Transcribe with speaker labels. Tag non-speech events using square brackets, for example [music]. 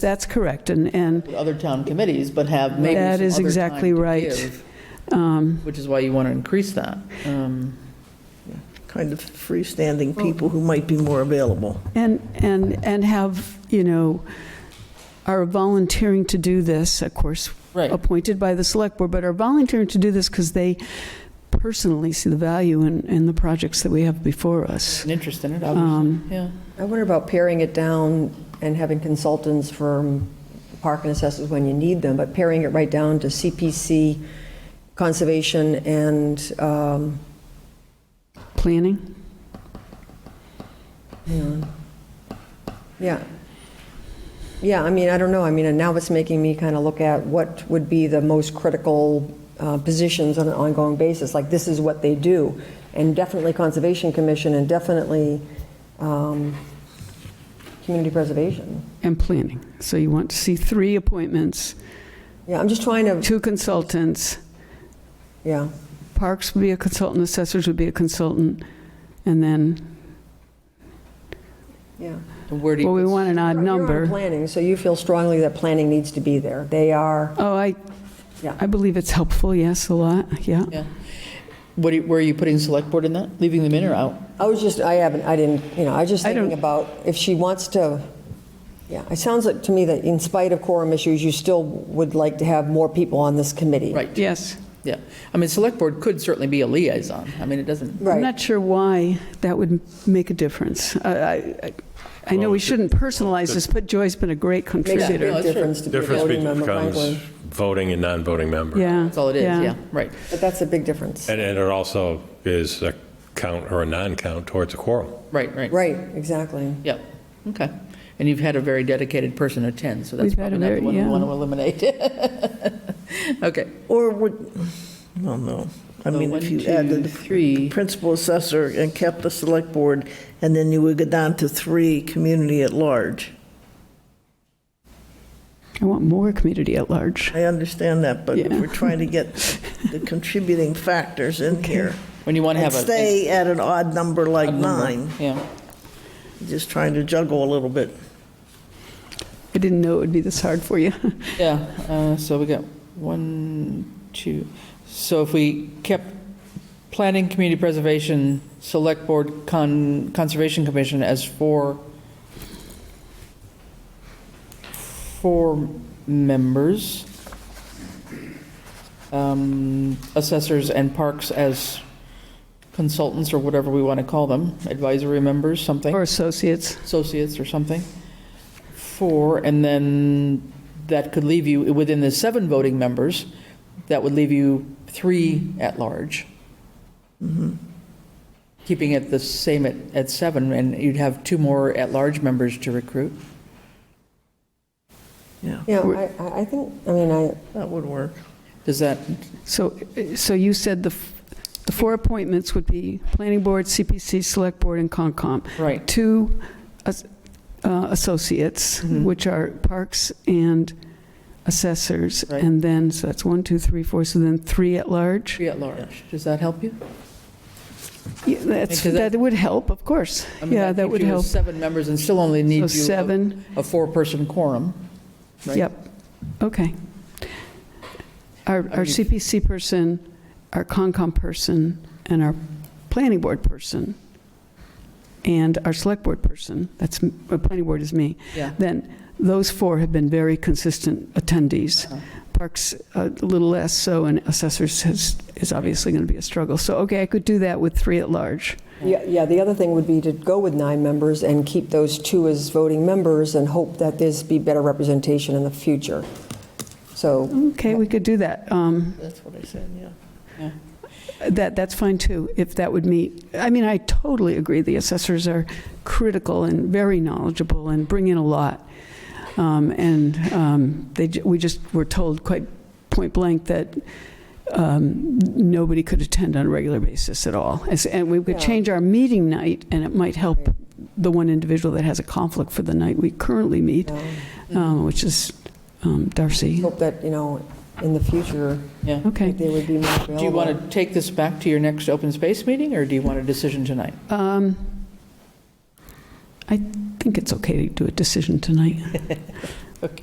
Speaker 1: That's correct, and, and
Speaker 2: with other town committees, but have maybe
Speaker 1: That
Speaker 2: some
Speaker 1: is
Speaker 2: other
Speaker 1: exactly
Speaker 2: time to
Speaker 1: right.
Speaker 2: give,
Speaker 1: um,
Speaker 2: Which is why you want to increase that. Um,
Speaker 3: kind of freestanding people who might be more available.
Speaker 1: And, and, and have, you know, are volunteering to do this, of course,
Speaker 2: Right.
Speaker 1: appointed by the select board, but are volunteering to do this because they personally see the value in, in the projects that we have before us.
Speaker 2: An interest in it,
Speaker 1: Um,
Speaker 2: obviously, yeah.
Speaker 4: I wonder about paring it down and having consultants from park and assessors when you need them, but paring it right down to CPC, conservation, and, um,
Speaker 1: Planning?
Speaker 4: yeah. Yeah, I mean, I don't know, I mean, and now it's making me kind of look at what would be the most critical uh, positions on an ongoing basis, like this is what they do, and definitely Conservation Commission, and definitely um, Community Preservation.
Speaker 1: And planning. So you want to see three appointments,
Speaker 4: Yeah, I'm just trying to,
Speaker 1: two consultants,
Speaker 4: yeah.
Speaker 1: Parks would be a consultant, assessors would be a consultant, and then,
Speaker 4: Yeah.
Speaker 2: And Where do
Speaker 1: well, we
Speaker 2: you,
Speaker 1: want an odd
Speaker 4: You're- you're on
Speaker 1: number.
Speaker 4: planning, so you feel strongly that planning needs to be there. They are,
Speaker 1: Oh, I,
Speaker 4: Yeah.
Speaker 1: I believe it's helpful, yes, a lot, yeah.
Speaker 2: yeah. What, do you- where are you putting select board in that? Leaving them in or out?
Speaker 1: Mm-hmm.
Speaker 4: I was just, I haven't, I didn't, you know, I was just
Speaker 1: I don't-
Speaker 4: thinking about if she wants to, yeah, it sounds like to me that in spite of quorum issues, you still would like to have more people on this committee.
Speaker 2: Right,
Speaker 1: Yes.
Speaker 2: yeah. I mean, select board could certainly be a liaison. I mean, it doesn't,
Speaker 1: I'm
Speaker 4: Right,
Speaker 1: not sure why that would make a difference. I, I- I know we shouldn't personalize this, but Joy's been a great
Speaker 4: makes a
Speaker 1: contributor.
Speaker 2: Yeah,
Speaker 4: big
Speaker 2: that's true.
Speaker 4: difference to be a
Speaker 5: Difference
Speaker 4: voting member,
Speaker 5: becomes
Speaker 4: frankly.
Speaker 5: voting and non-voting member.
Speaker 1: Yeah.
Speaker 2: that's all it is, yeah, right.
Speaker 4: But that's a big difference.
Speaker 5: And and it also is a count or a non-count towards a quorum.
Speaker 2: Right, right.
Speaker 4: Right, exactly.
Speaker 2: Yeah, okay. And you've had a very dedicated person attend, so that's
Speaker 1: We've had
Speaker 2: probably
Speaker 1: a
Speaker 2: not the
Speaker 1: very-
Speaker 2: one we
Speaker 1: yeah.
Speaker 2: want to eliminate. [laughs] Okay.
Speaker 3: Or would, well, no, I
Speaker 2: So
Speaker 3: mean,
Speaker 2: one,
Speaker 3: if you
Speaker 2: two,
Speaker 3: added
Speaker 2: three.
Speaker 3: principal assessor and kept the select board, and then you would go down to three, community at large.
Speaker 1: I want more community at large.
Speaker 3: I understand that, but
Speaker 1: Yeah.
Speaker 3: we're trying
Speaker 2: [laughs]
Speaker 3: to get the contributing factors in here.
Speaker 2: When you want to
Speaker 3: And
Speaker 2: have a.
Speaker 3: stay at an odd number like
Speaker 2: a number.
Speaker 3: nine,
Speaker 2: Yeah,
Speaker 3: just trying to juggle a little bit.
Speaker 1: I didn't know it would be this hard for
Speaker 2: [laughs]
Speaker 1: you.
Speaker 2: yeah. uh, So we got one, two. So if we kept planning, community preservation, select board, con, conservation commission as four, four members, um, assessors and parks as consultants or whatever we want to call them, advisory members, something.
Speaker 1: Or associates.
Speaker 2: associates or something, four, and then that could leave you, within the seven voting members, that would leave you three at large.
Speaker 1: Mm-hmm.
Speaker 2: Keeping it the same at, at seven, and you'd have two more at-large members to recruit.
Speaker 3: Yeah,
Speaker 4: Yeah, I- I, I think, I mean, I,
Speaker 3: that would work.
Speaker 2: Does that,
Speaker 1: So, so you said the, f- the four appointments would be planning board, CPC, select board, and Concom.
Speaker 2: right,
Speaker 1: Two as- uh, associates,
Speaker 2: Mm-hmm.
Speaker 1: which are parks and assessors.
Speaker 2: Right.
Speaker 1: And then, so that's one, two, three, four, so then three at large?
Speaker 2: three at-large, does that help you?
Speaker 1: Yeah, That's,
Speaker 2: Because that-
Speaker 1: that would help, of course.
Speaker 2: I mean,
Speaker 1: Yeah, that
Speaker 2: keeps
Speaker 1: would
Speaker 2: you with
Speaker 1: help.
Speaker 2: Seven members and still only
Speaker 1: So
Speaker 2: needs you. a-
Speaker 1: seven,
Speaker 2: A four-person quorum, right?
Speaker 1: yep, okay. Our our
Speaker 2: mean-
Speaker 1: CPC person, our Concom person, and our planning board person, and our select board person, that's, m- uh, planning board is me,
Speaker 2: Yeah,
Speaker 1: then those four have been very consistent attendees.
Speaker 2: Uh-huh.
Speaker 1: Parks, uh, a little less so, and assessors has- is obviously going to be a struggle. So, okay, I could do that with three at large.
Speaker 4: Yeah, yeah, the other thing would be to go with nine members and keep those two as voting members and hope that there's be better representation in the future. So,
Speaker 1: Okay, we could do that. Um,
Speaker 3: That's what I said, yeah.
Speaker 1: That, that's fine too, if that would meet, I mean, I totally agree, the assessors are critical and very knowledgeable and bring in a lot. Um, And um, they, ju- we just were told quite point blank that um, nobody could attend on a regular basis at all. As- And we could
Speaker 4: Yeah.
Speaker 1: change our meeting night, and it might help
Speaker 4: Right.
Speaker 1: the one individual that has a conflict for the night we currently meet,
Speaker 4: um,
Speaker 1: um, which is um, Darcy.
Speaker 4: hope that, you know, in the future,
Speaker 2: yeah.
Speaker 1: Okay.
Speaker 4: that they would be more available.
Speaker 2: Do you want to take this back to your next open space meeting, or do you want a decision tonight?
Speaker 1: Um, I think it's okay to do a decision tonight.